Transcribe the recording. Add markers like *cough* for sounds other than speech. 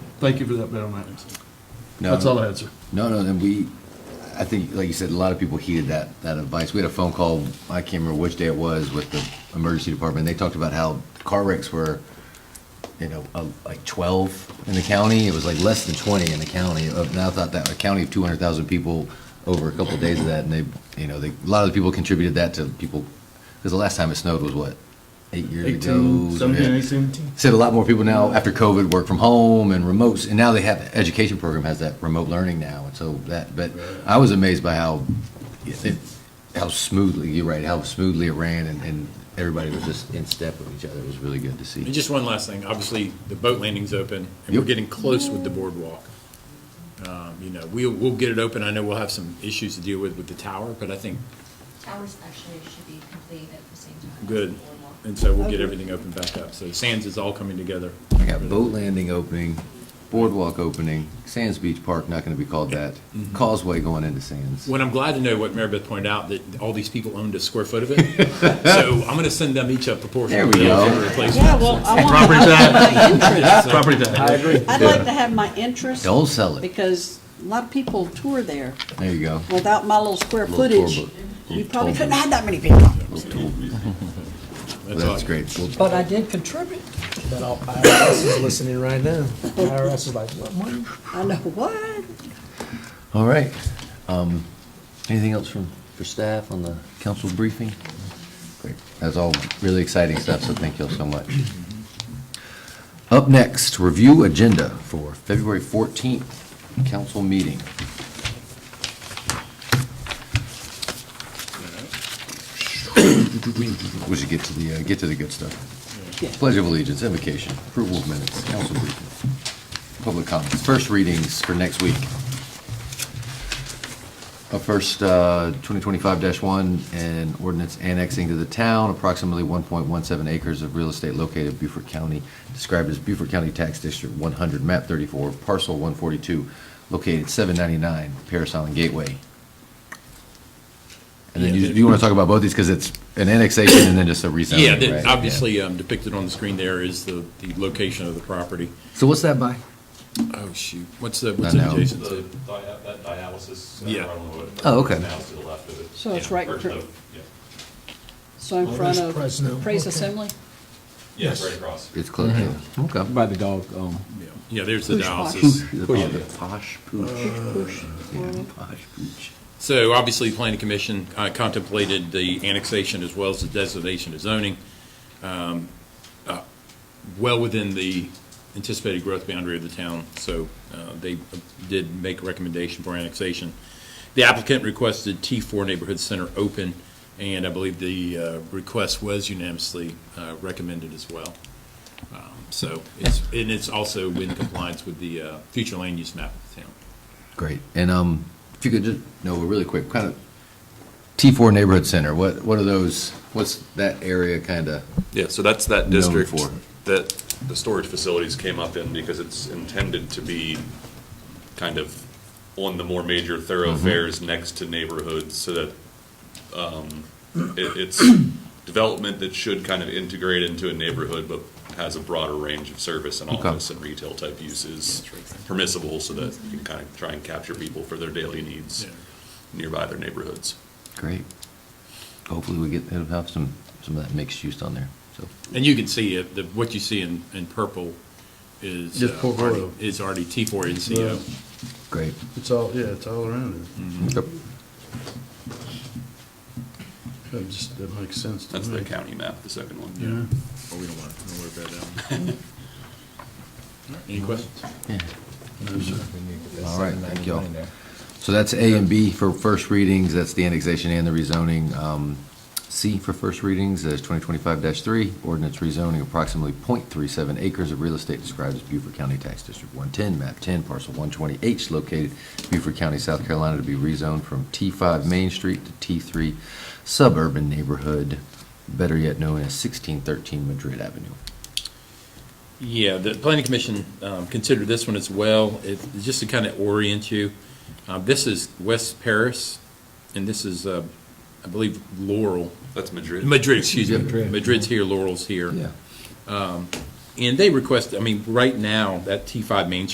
Thank you for the update on that. No, That's all I had, sir. No, no, and we, I think, like you said, a lot of people heeded that, that advice. We had a phone call, I can't remember which day it was, with the emergency department. They talked about how car wrecks were, you know, uh, like 12 in the county. It was like less than 20 in the county. Uh, Now I thought that, a county of 200,000 people over a couple of days of that, and they, you know, they, a lot of the people contributed that to people, because the last time it snowed was what? Eight years ago? Eighteen, seventeen, Yeah. eighteen? Said a lot more people now after COVID work from home and remotes, and now they have education program has that remote learning now, and so that. But I was amazed by how it, how smoothly you're right, how smoothly it ran, and, and everybody was just in step with each other. It was really good to And see. just one last thing, obviously, the boat landing's open, and we're Yep. getting close with the boardwalk. Um, You know, we'll, we'll get it open, I know we'll have some issues to deal with with the tower, but I think, Towers actually should be complete at the same time. as good. the boardwalk. And so we'll get everything open back up, so Sands is all coming together. I got boat landing opening, boardwalk opening, Sands Beach Park not going to be called that, Causeway going into Sands. Mm-hmm. What I'm glad to know, what Mary Beth pointed out, that all these people owned a square foot of *laughs* it, so I'm gonna send them each a proportion. There of we the go. bill for replacement. Yeah, well, I want, Property I tax, want my interest. property tax. agree. I'd like to have my interest Don't sell it. because a lot of people tour there. There you go. Without my little square Little tour footage, book. you Little probably tour couldn't book. have that many people. all I That's got. great. Well, But I did contribute. But I'll- IRS is listening right now. IRS is like, what money? I know, what? All right. Um, Anything else from, for staff on the council briefing? Great. That's all really exciting stuff, so thank you all so much. Up next, review agenda for February 14th, council meeting. We should get to the, uh, get to the good stuff. Pledge of allegiance, invocation, approval of minutes, council briefing, public comments, first readings for next week. Uh, First, uh, 2025-1, an ordinance annexing to the town approximately 1.17 acres of real estate located in Beaufort County, described as Beaufort County Tax District 100, map 34, parcel 142, located 799 Paris Island Gateway. And then Yeah, you, the- you want to talk about both these because it's an annexation and then just a rezoning, Yeah, right? that- obviously um, depicted on the screen there is the, the location of the property. So what's that by? Oh, shoot, what's the, what's I it know. adjacent The to? dia- That dialysis. uh, Yeah. right on the wood. Oh, okay. Now it's to the left of it. So it's right in Or front- the- yeah. So in Oh, front that's of Fresno, Praise okay. Assembly? Yeah, Yes. right across. It's close. yeah. Mm-hmm. Okay. By the dog, um, Yeah, Yeah, there's the Who's watching? dialysis. The- oh, the posh pooch. Push. Yeah, posh pooch. So obviously, the planning commission uh, contemplated the annexation as well as the designation of zoning, um, uh, well within the anticipated growth boundary of the town, so uh, they did make a recommendation for annexation. The applicant requested T4 Neighborhood Center open, and I believe the uh, request was unanimously uh, recommended as well. Um, So, it's- and it's also in compliance with the uh, future land use map of the town. Great. And um, if you could just, no, really quick, kind of, T4 Neighborhood Center, what, what are those, what's that area kind of? Yeah, so that's that Known district for. that the storage facilities came up in because it's intended to be kind of on the more major thoroughfares Mm-hmm. next to neighborhoods so that um, it, it's *coughs* development that should kind of integrate into a neighborhood but has a broader range of service and Okay. office and retail type uses permissible so that you can kind of try and capture people for their daily needs Yeah. nearby their neighborhoods. Great. Hopefully we get, it'll have some, some of that mixed use on there, so. And you can see it, the, what you see in, in purple is. Just uh, portfolio. already- Is already T four NCO. Great. It's all, yeah, it's all around Yep. it. That just, that makes sense to me. That's the Mm-hmm. county map, the second one. Yeah. Well, Oh, we don't want, don't worry about that. *laughs* one. All right, Any questions? No, sir. All right, thank y'all. So that's A and B for first readings, that's the annexation and the rezoning. Um, C for first readings is 2025-3, ordinance rezoning approximately .37 acres of real estate described as Beaufort County Tax District 110, map 10, parcel 120H, located Beaufort County, South Carolina, to be rezoned from T5 Main Street to T3 suburban neighborhood, better yet known as 1613 Madrid Avenue. Yeah, the planning commission, um, considered this one as well. It, just to kind of orient you, uh, this is West Paris, and this is, uh, I believe Laurel, That's Madrid. Madrid, excuse me. Madrid. Madrid's here, Laurel's here. And they request, I mean, right now, that T five Main Street